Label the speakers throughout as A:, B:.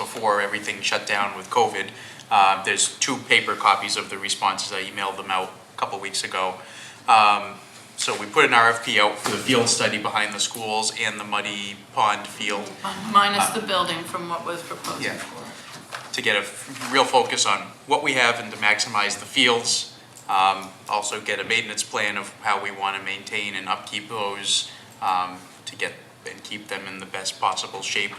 A: before everything shut down with COVID. Uh, There's two paper copies of the responses. I emailed them out a couple weeks ago. Um, So we put an RFP out for the field study behind the schools and the muddy pond field
B: Minus the building from what was proposed
A: Yeah.
B: before.
A: to get a f- real focus on what we have and to maximize the fields. Um, Also get a maintenance plan of how we want to maintain and upkeep those um, to get and keep them in the best possible shape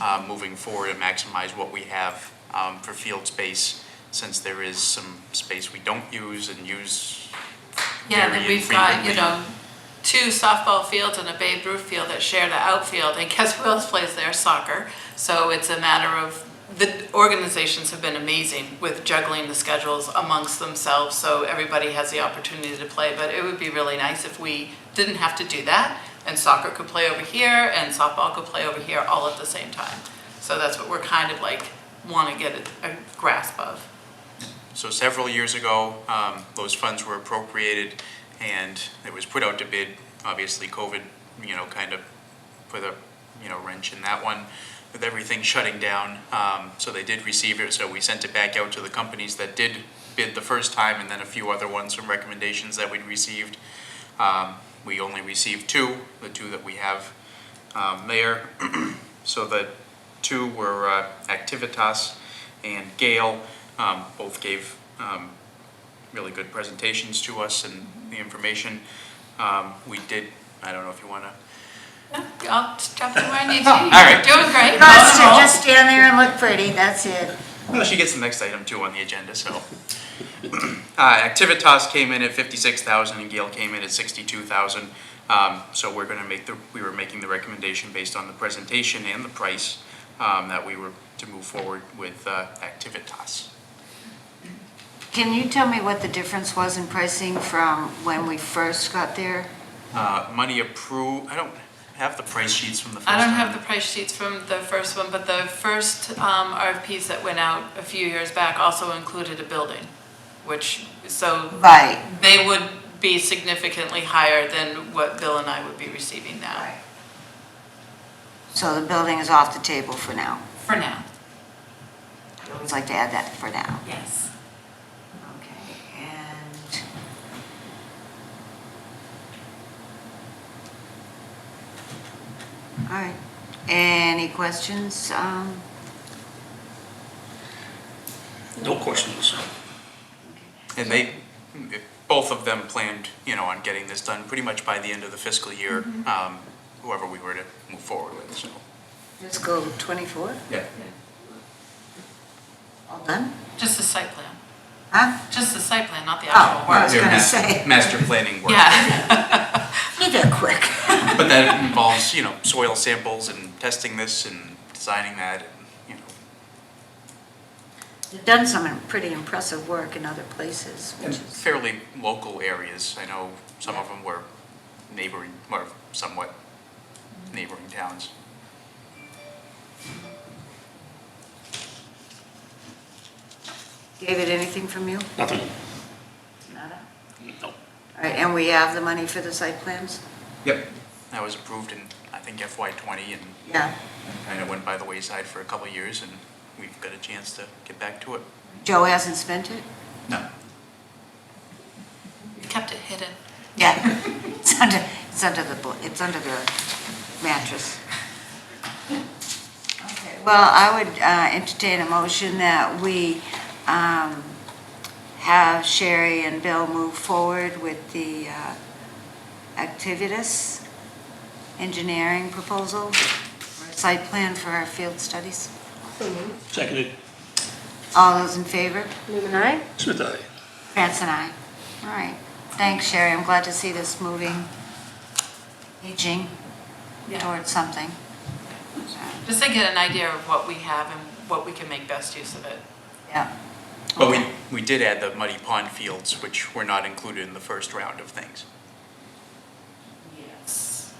A: uh, moving forward and maximize what we have um, for field space, since there is some space we don't use and use
B: Yeah, then
A: very
B: we've got, you
A: infrequently.
B: know, two softball fields and a Babe Ruth field that share the outfield, and guess who else plays their soccer? So it's a matter of, the organizations have been amazing with juggling the schedules amongst themselves, so everybody has the opportunity to play, but it would be really nice if we didn't have to do that, and soccer could play over here, and softball could play over here, all at the same time. So that's what we're kind of like, wanna get a a grasp of.
A: So several years ago, um, those funds were appropriated and it was put out to bid. Obviously, COVID, you know, kind of put a, you know, wrench in that one with everything shutting down. Um, So they did receive it, so we sent it back out to the companies that did bid the first time and then a few other ones, some recommendations that we'd received. Um, We only received two, the two that we have um, there. So the two were uh, Activitas and Gale. Um, Both gave um, really good presentations to us and the information. Um, We did, I don't know if you want to,
B: I'll jump in where I need to.
A: All right.
B: You're Doing great.
C: Bus to just stand there and look pretty, that's it.
A: well, she gets the next item too on the agenda, so. Uh, Activitas came in at 56,000 and Gale came in at 62,000. Um, So we're going to make the, we were making the recommendation based on the presentation and the price um, that we were to move forward with uh, Activitas.
C: Can you tell me what the difference was in pricing from when we first got there?
A: Uh, money approved, I don't have the price sheets from the first
B: I
A: time.
B: don't have the price sheets from the first one, but the first um, RFPs that went out a few years back also included a building, which, so
C: Right.
B: they would be significantly higher than what Bill and I would be receiving now,
C: So the building is off the table for now.
B: for now.
C: I'd always like to add that for now.
B: Yes.
C: Okay, and... All right, any questions? Um,
D: No questions.
A: And they, both of them planned, you know, on getting this done pretty much by the end of the fiscal year, um, whoever we were to move forward with, so.
C: Let's go 24.
A: Yeah.
C: All done?
B: Just the site plan,
C: Huh?
B: just the site plan, not the
C: Oh,
B: actual
C: I
B: work.
C: was gonna say.
A: Master planning work.
B: Yeah,
C: You did quick.
A: But that involves, you know, soil samples and testing this and designing that, and, you know.
C: You've done some pretty impressive work in other places,
A: in
C: which is,
A: Fairly local areas, I know some of them were neighboring, or somewhat neighboring towns.
C: David, anything from you?
D: Nothing.
C: Nada?
D: No.
C: All right, and we have the money for the site plans?
A: Yep. That was approved in, I think FY twenty, and
C: Yeah,
A: kind of went by the wayside for a couple of years, and we've got a chance to get back to it.
C: Joe hasn't spent it?
A: No.
B: kept it hidden.
C: Yeah. It's under, it's under the, bl- it's under the mattress. Okay. Well, I would uh, entertain a motion that we um, have Sherry and Bill move forward with the uh, Activitas engineering proposal, site plan for our field studies.
D: Seconded.
C: All those in favor?
E: Newman, aye?
D: Smith, aye.
C: France and I. All right. Thanks, Sherry. I'm glad to see this moving, aging
B: Yeah.
C: towards something. So,
B: Just to get an idea of what we have and what we can make best use of it.
C: Yeah.
A: But we, we did add the muddy pond fields, which were not included in the first round of things.
B: Yes.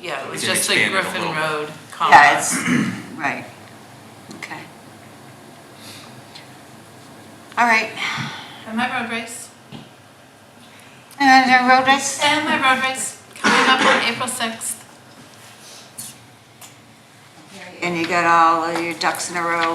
B: Yeah, it
A: We
B: was
A: can
B: just the
A: expand it a
B: Griffin
A: little bit.
B: Road
C: Yeah,
B: complex.
C: it's, right. Okay. All right.
B: Am I road race?
C: And the road race?
B: And my road race coming up on April 6th.
C: Here and you got all of your ducks in a row